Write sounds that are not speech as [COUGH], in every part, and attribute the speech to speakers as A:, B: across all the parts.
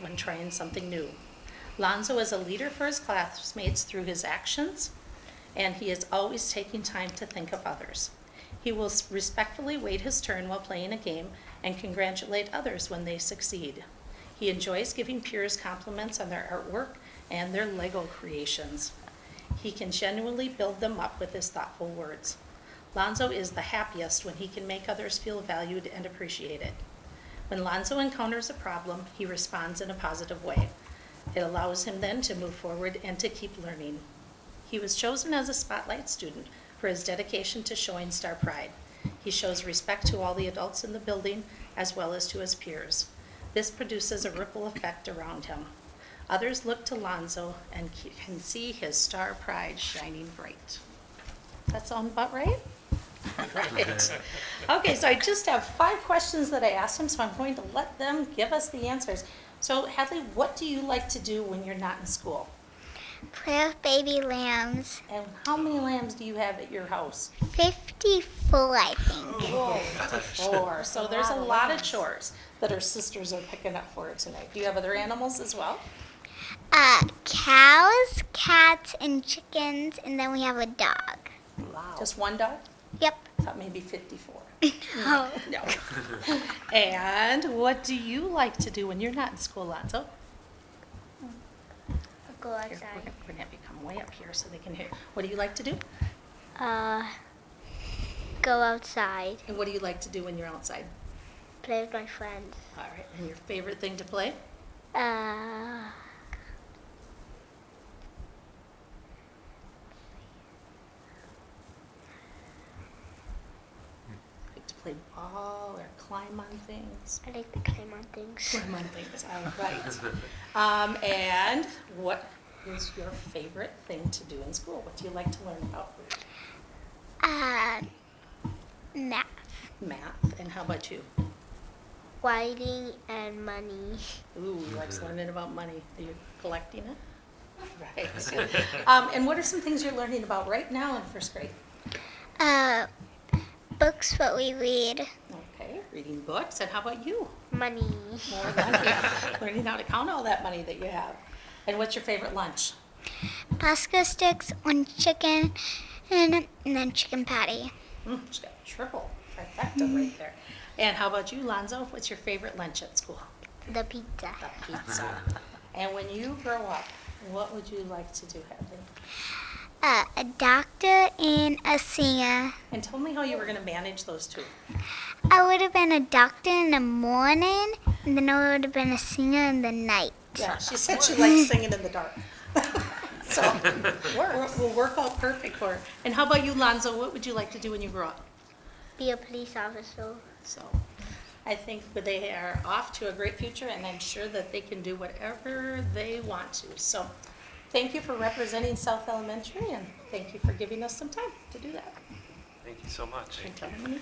A: when trying something new. Lonzo is a leader for his classmates through his actions, and he is always taking time to think of others. He will s- respectfully wait his turn while playing a game and congratulate others when they succeed. He enjoys giving peers compliments on their artwork and their Lego creations. He can genuinely build them up with his thoughtful words. Lonzo is the happiest when he can make others feel valued and appreciated. When Lonzo encounters a problem, he responds in a positive way. It allows him then to move forward and to keep learning. He was chosen as a spotlight student for his dedication to showing star pride. He shows respect to all the adults in the building as well as to his peers. This produces a ripple effect around him. Others look to Lonzo and c- can see his star pride shining bright. That sound about right? Right. Okay, so I just have five questions that I asked him, so I'm going to let them give us the answers. So Hadley, what do you like to do when you're not in school?
B: Play with baby lambs.
A: And how many lambs do you have at your house?
B: 54, I think.
A: Four. So there's a lot of chores that her sisters are picking up for her tonight. Do you have other animals as well?
B: Uh, cows, cats, and chickens, and then we have a dog.
A: Just one dog?
B: Yep.
A: I thought maybe 54.
B: Oh.
A: No. [LAUGHS] And what do you like to do when you're not in school, Lonzo?
B: [LAUGHS] Go
A: Here, We're gonna we're gonna have you come way up here so they can hear. What do you like to do?
B: Uh, go outside.
A: And what do you like to do when you're outside?
B: Play with my friends.
A: All right, and your favorite thing to play?
B: Uh,
A: Like to play ball or climb on things?
B: I like to climb on [LAUGHS] things.
A: Climb on things, all right. Um, and what is your favorite thing to do in school? What do you like to learn about?
B: Uh, math.
A: Math, and how about you?
B: Writing and money.
A: Ooh, he likes learning about money. Are you collecting it? Right. Um, and what are some things you're learning about right now in first grade?
B: Uh, books, what we read.
A: Okay, reading books, and how about you?
B: Money.
A: More money, learning how to count all that money that you have. And what's your favorite lunch?
B: Pasta sticks, one chicken, and, and then chicken patty.
A: Mm, she's got triple trifecta right there. And how about you, Lonzo? What's your favorite lunch at school?
B: The pizza.
A: The pizza. and when you grow up, what would you like to do, Hadley?
B: Uh, a doctor and a singer.
A: And tell me how you were going to manage those two.
B: I would have been a doctor in the morning, and then I would have been a singer in the night.
A: Yeah, she said she likes singing in the dark. [LAUGHS] so works. will work out perfect for her. And how about you, Lonzo? What would you like to do when you grow up?
B: Be a police officer.
A: So I think that they are off to a great future, and I'm sure that they can do whatever they want to. So thank you for representing South Elementary, and thank you for giving us some time to do that.
C: Thank you so much.
A: And tell them-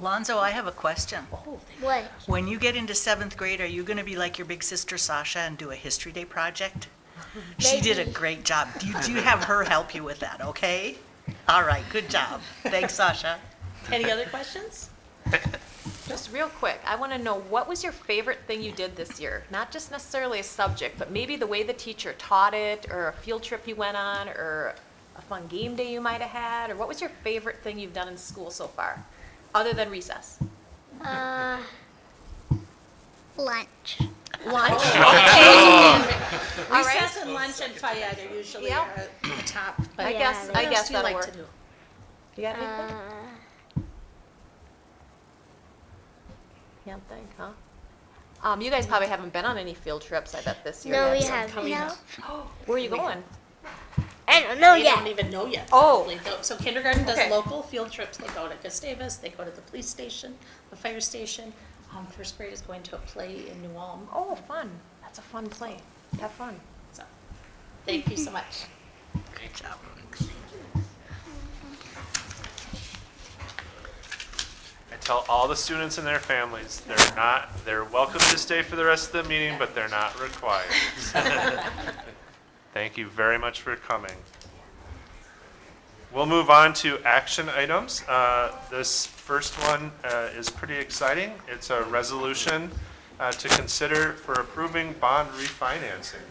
D: Lonzo, I have a question.
A: Oh, thank-
B: What?
D: When you get into seventh grade, are you going to be like your big sister Sasha and do a History Day project? She did a
B: Maybe.
D: great job. Do you, do you have her help you with that, okay? All right, good job. Thanks, Sasha.
A: any other questions?
E: Just real quick, I want to know what was your favorite thing you did this year? Not just necessarily a subject, but maybe the way the teacher taught it, or a field trip you went on, or a fun game day you might have had, or what was your favorite thing you've done in school so far, other than recess?
B: Uh, lunch.
E: Lunch. All right.
A: Recess and lunch and FIAD are usually
E: Yep.
A: our the top. but
E: I guess,
B: Yeah,
A: What
E: I
A: else
E: guess
A: do you
E: that'll
A: like to do?
E: work. You got anything?
B: Uh,
E: Can't think, huh? Um, you guys probably haven't been on any field trips, I bet, this year.
B: no,
E: yet,
B: we
E: so-
B: have no.
E: Where are you going?
B: I don't know
A: They don't
B: yet.
A: even know yet.
E: Oh.
A: probably. Though- So kindergarten does
E: Okay.
A: local field trips. They go to Gustavus, they go to the police station, the fire station. Um, first grade is going to a play in New Ulm.
E: Oh, fun. That's a fun play. Have fun.
A: So, thank you so much.
D: Great job.
C: I tell all the students and their families, they're not, they're welcome to stay for the rest of the meeting, but they're not required. [LAUGHS] Thank you very much for coming. We'll move on to action items. Uh, This first one uh, is pretty exciting. It's a resolution uh, to consider for approving bond refinancing.